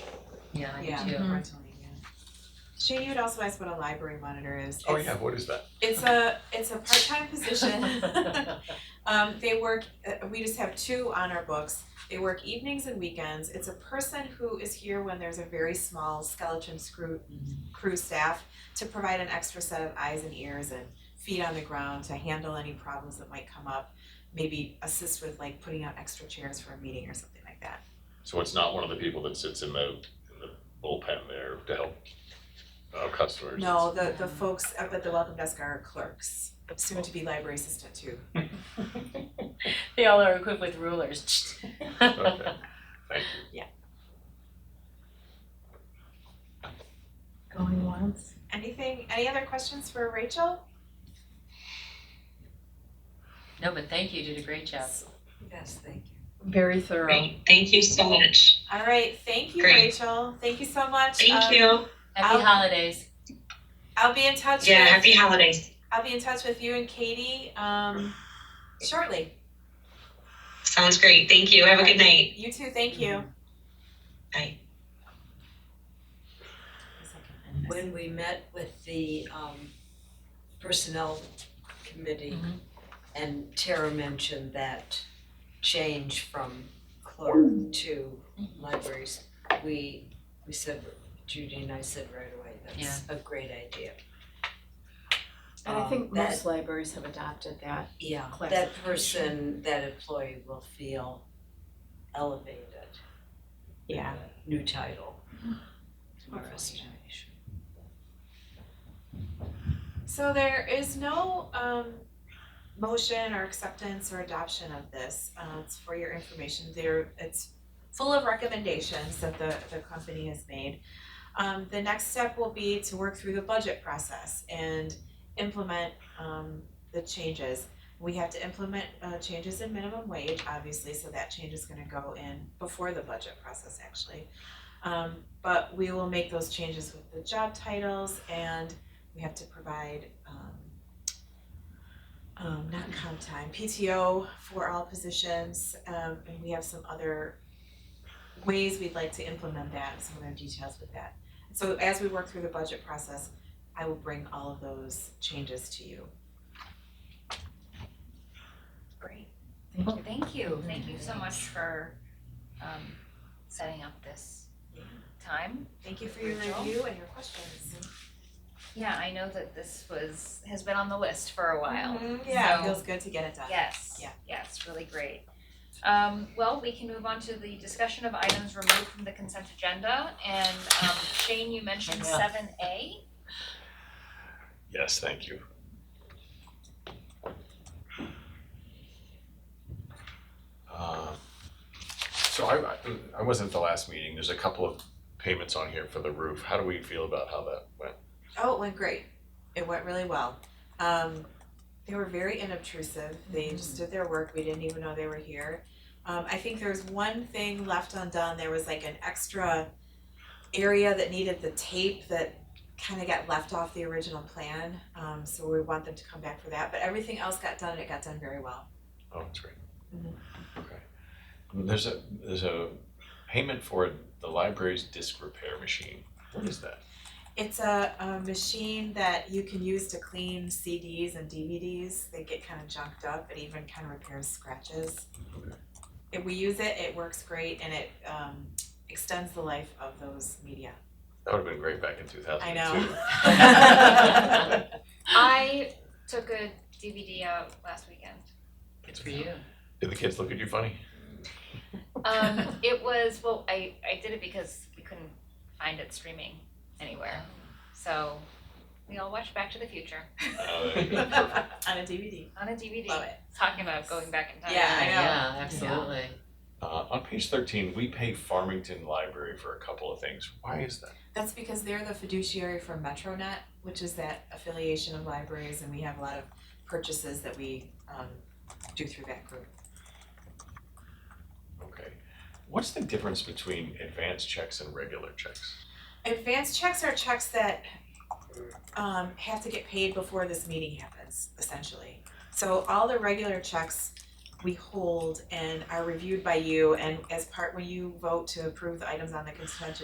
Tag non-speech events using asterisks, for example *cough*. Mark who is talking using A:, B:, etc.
A: Yeah, I
B: Yeah.
A: do
C: Mm-hmm.
A: too.
B: Shay, you had also asked what a library monitor is.
D: Oh
B: It's-
D: yeah, what is that?
B: It's a, it's a part-time position.
D: *laughs*
B: *laughs* Um, they work, uh, we just have two on our books. They work evenings and weekends. It's a person who is here when there's a very small skeleton crew,
D: Mm-hmm.
B: crew staff to provide an extra set of eyes and ears and feet on the ground to handle any problems that might come up. Maybe assist with like putting out extra chairs for a meeting or something like that.
D: So it's not one of the people that sits in the, in the bullpen there to help uh, customers?
B: No, the, the folks up at the welcome desk are clerks, soon to be library assistant too.
C: They all are equipped with
B: *laughs*
C: rulers.
D: Okay, thank you.
A: Going once.
B: Anything, any other questions for Rachel?
C: No, but thank you, you did a great job.
E: Yes, thank you.
A: Very thorough.
F: Great, thank you so much.
B: All right, thank you,
F: Great.
B: Rachel. Thank you so much. Um,
F: Thank you.
C: Happy
B: I'll- *laughs*
C: holidays.
B: I'll be in touch
F: Yeah,
B: with
F: happy holidays.
B: I'll be in touch with you and Katie um shortly.
F: Sounds great. Thank you. Have a good night.
B: You too, thank you.
F: Bye.
E: When we met with the um personnel committee
C: Mhm.
E: and Tara mentioned that change from clerk to libraries, we we said, Judy and I said right away, that's a great idea.
G: And I
E: Um,
G: think
E: that-
G: most libraries have adopted that.
E: Yeah, that
G: Classification.
E: person, that employee will feel elevated. with
G: Yeah.
E: the New title.
B: Hopefully.
E: Restoration.
B: So there is no um motion or acceptance or adoption of this. Uh it's for your information. There it's full of recommendations that the the company has made. Um the next step will be to work through the budget process and implement um the changes. We have to implement uh changes in minimum wage, obviously, so that change is gonna go in before the budget process actually. Um but we will make those changes with the job titles and we have to provide um um not comp time, PTO for all positions, um and we have some other ways we'd like to implement that, some other details with that. So as we work through the budget process, I will bring all of those changes to you.
A: Great.
G: Thank you.
A: Thank you, thank you so much for um setting up this time.
B: Thank you for your
A: Rachel?
B: review and your questions.
A: Yeah, I know that this was, has been on the list for a while.
B: Mm-hmm. Yeah, it
A: So-
B: feels good to get it done.
A: Yes.
B: Yeah.
A: Yes, really great. Um, well, we can move on to the discussion of items removed from the consent agenda, and um, Shane, you mentioned
C: Yeah.
A: seven A.
D: Yes, thank you. Uh, So I, I- I wasn't at the last meeting. There's a couple of payments on here for the roof. How do we feel about how that went?
B: Oh, it went great. It went really well. Um, they were very inobtrusive. They just did their work. We didn't even know they were here. Um, I think there was one thing left undone. There was like an extra area that needed the tape that kind of got left off the original plan. Um, so we want them to come back for that. But everything else got done, and it got done very well.
D: Oh, that's great.
B: Mhm.
D: Okay. There's a, there's a payment for the library's disc repair machine. What is that?
B: It's a, a machine that you can use to clean CDs and DVDs. They get kind of junked up. It even kind of repairs scratches. If we use it, it works great and it um, extends the life of those media. *laughs*
D: That would have been great back in two thousand
B: I
D: and
B: know. *laughs*
D: two.
A: I took a DVD out last weekend.
C: Good for you.
D: Did the kids look at
B: *laughs*
D: you funny?
A: Um, it was, well, I, I did it because we couldn't find it streaming anywhere. So we all watched Back to the Future
B: On
D: Uh,
B: a DVD.
A: on a DVD.
B: Love it.
A: Talking about going back in time.
B: Yeah, I know.
C: Yeah, absolutely.
D: Uh, on page thirteen, we pay Farmington Library for a couple of things. Why is that?
B: That's because they're the fiduciary for MetroNet, which is that affiliation of libraries, and we have a lot of purchases that we um, do through that group.
D: Okay. What's the difference between advance checks and regular checks?
B: Advance checks are checks that um have to get paid before this meeting happens, essentially. So all the regular checks we hold and are reviewed by you and as part, when you vote to approve the items on the consent